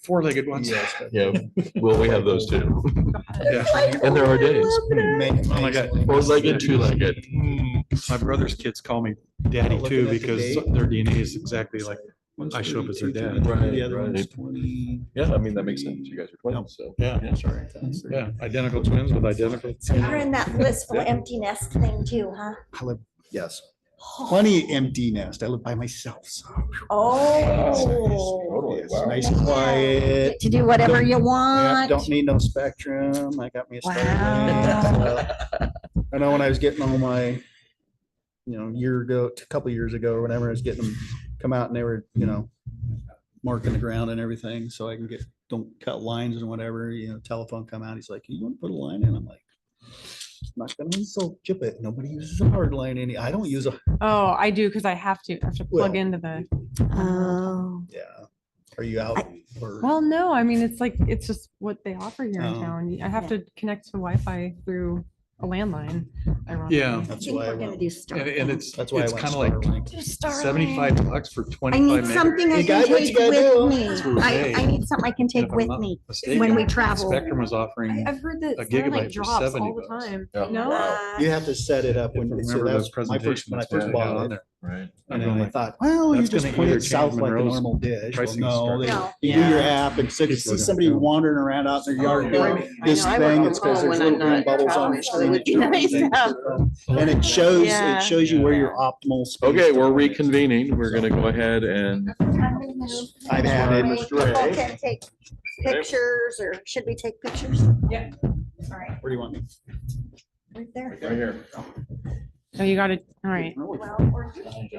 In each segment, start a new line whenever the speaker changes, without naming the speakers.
four-legged ones.
Yes.
Yeah, well, we have those too.
Yeah.
And there are days.
Oh my God.
Four-legged, two-legged.
My brother's kids call me daddy
Not
too
looking at the
because
date.
their DNA is exactly like, I show up as their dad.
Right,
The other
right.
one's twenty.
Yeah, I mean, that makes sense. You guys are twins, so.
yeah,
sorry.
yeah, identical twins with identical.
You're in that blissful empty nest thing too, huh?
I live- Yes, plenty empty nest. I live by myself, so.
Oh.
Totally,
It's
wow.
Nice,
Yeah.
quiet.
Get To do whatever
Yeah,
you want.
Don't need no spectrum. I got me a.
Wow.
Starlink, so. I know when I was getting all my, you know, year ago, a couple years ago or whenever, I was getting them come out and they were, you know, marking the ground and everything so I can get, don't cut lines and whatever, you know, telephone come out. He's like, you want to put a line in? I'm like, "I'm not gonna insult you, but nobody uses a hard line any, I don't use a,
Oh, I do because I have to I have to plug
Well,
into the.
Oh.
yeah. Are you out? or-
Well, no, I mean it's like it's just what they offer here in
Oh.
town. I have
Yeah.
to connect to Wi-Fi through a landline. Ironically.
Yeah.
I
That's
think
why I
we're gonna
went-
do
And,
Starlink.
and it's,
that's why I
it's
went
kind of like
Starlink.
Do Starlink.
seventy-five bucks for
I
twenty-five.
need
meg-
something I
You got
can
what
take
you gotta do.
with me.
That's what we
I,
say.
I need something I can
And
take
if I'm
with
not
me.
mistaken,
when we travel.
Spectrum was
I,
offering,
I've heard that
A gigabyte
Starlink
for
drops
70
all the
bucks.
time.
Yeah.
Uh,
No,
Wow.
You have to set it up
if I
when, so
remember
that
those
was my
presentations.
first, uh,
uh,
when I
that's what
first
they had on
bought it.
there.
Right.
I'm
And
going
I
like,
thought, well, you
that's
just
gonna
put it
interchange
south like a
Monroe's
normal dish. Well,
pricing
no, they-
No.
you do your app and so you
Kids
see
were gonna
somebody
go.
wandering around out in their yard
yeah.
doing this
Oh, I know, I work
thing.
from
It's because
home
there's
when
little
I'm
green
not
bubbles on the
traveling, so it
screen.
would
that
be
you can
nice to
take
have-
photos. And it shows,
Yeah.
it shows you where your optimal. space
Okay,
to
we're
put it.
reconvening. We're gonna go ahead and,
I've had it.
People can take pictures or should we take pictures?
Yeah.
All right,
Where do you want me?
right there.
right here.
so you got to All right.
Well, or-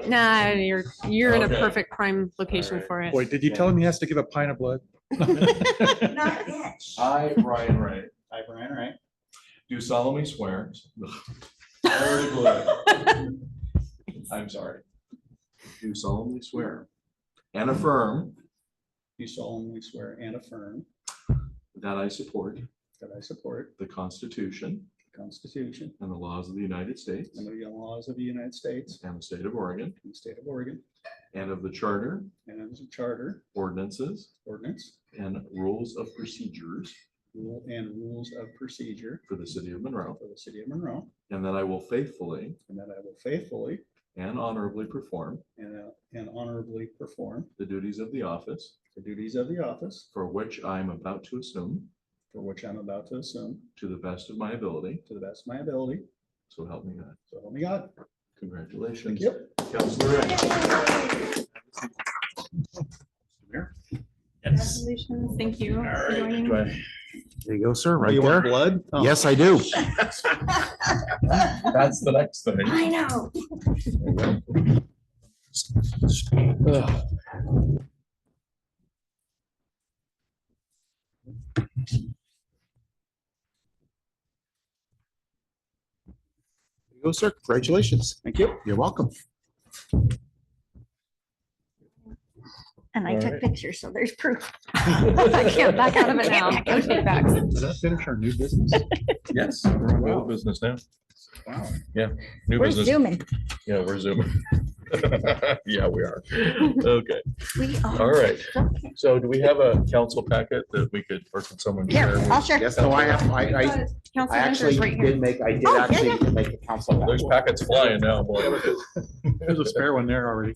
Nah, you're you're in a
Okay.
perfect prime location
right.
for it.
boy, did you tell him he has to give a pint of blood?
Not yet.
I, Brian Wright,
Hi, Brian, all right.
do solemnly swear. Swear to God. I'm sorry. Do solemnly swear and affirm
You solemnly swear and affirm
that I support
that I support
the Constitution
the Constitution
and the laws of the United States
and the laws of the United States
and the state of Oregon
and the state of Oregon
and of the charter,
and the charter
ordinances,
ordinance
and rules of procedures
rule and rules of procedure
for the city of Monroe,
for the city of Monroe,
and that I will faithfully
and that I will faithfully
and honorably perform
and uh, and honorably perform
the duties of the office
the duties of the office
for which I am about to assume
for which I'm about to assume
to the best of my ability.
to the best of my ability.
So help me God.
So help me God.
Congratulations.
Yep.
Counselor Wright.
Congratulations. Thank you. for joining.
There you go, sir,
You
right
want
there.
Blood? Oh.
Yes, I do.
That's the next thing.
I know.
There you go, sir. Congratulations.
Thank you.
You're welcome.
And I
All
took
right.
pictures, so there's proof.
I can't back out of it now. No take backs.
Does that finish our new business?
Yes, we're on old business now. Yeah, new
We're
business.
zooming.
Yeah, we're zooming. Yeah, we are. Okay.
We are.
All right. So do we have a council packet that we could, or can someone? share
Here,
with-
I'll share.
Yes, no, I have, I, I, I
Council
actually
members right here.
did make, I did
Oh, yeah,
actually make the council. back.
There's packets flying now. boy.
There's a spare one there already.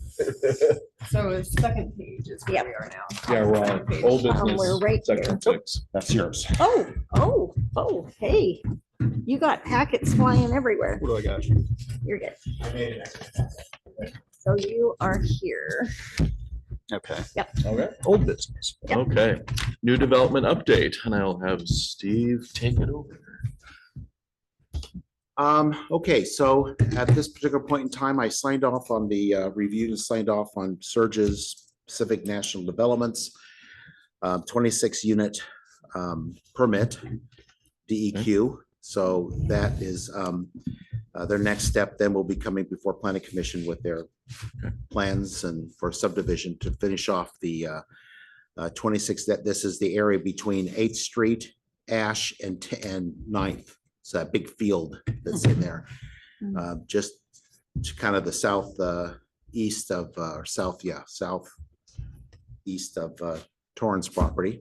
So the second page is where
Yep.
we are now.
Yeah, we're on old
Um, we're
business,
right
section six.
That's yours.
Oh, oh, oh, hey, you got packets flying everywhere.
What do I got?
You're good. So you are here.
Okay.
Okay. Old business.
Yep.
Okay, new development update, and I'll have Steve take it over.
Um, okay, so at this particular point in time, I signed off on the uh, review and signed off on Surge's Civic National Developments. uh, twenty-six unit um, permit, DEQ. So that is um, uh, their next step, then will be coming before planning commission with their plans and for subdivision to finish off the uh, uh, twenty-six, that this is the area between Eighth Street, Ash and, t- and Ninth. It's that big field that's in there.
Mhm.
Uh, Just to kind of the south, uh, east of, uh, or south, yeah, south east of uh, Torrance property.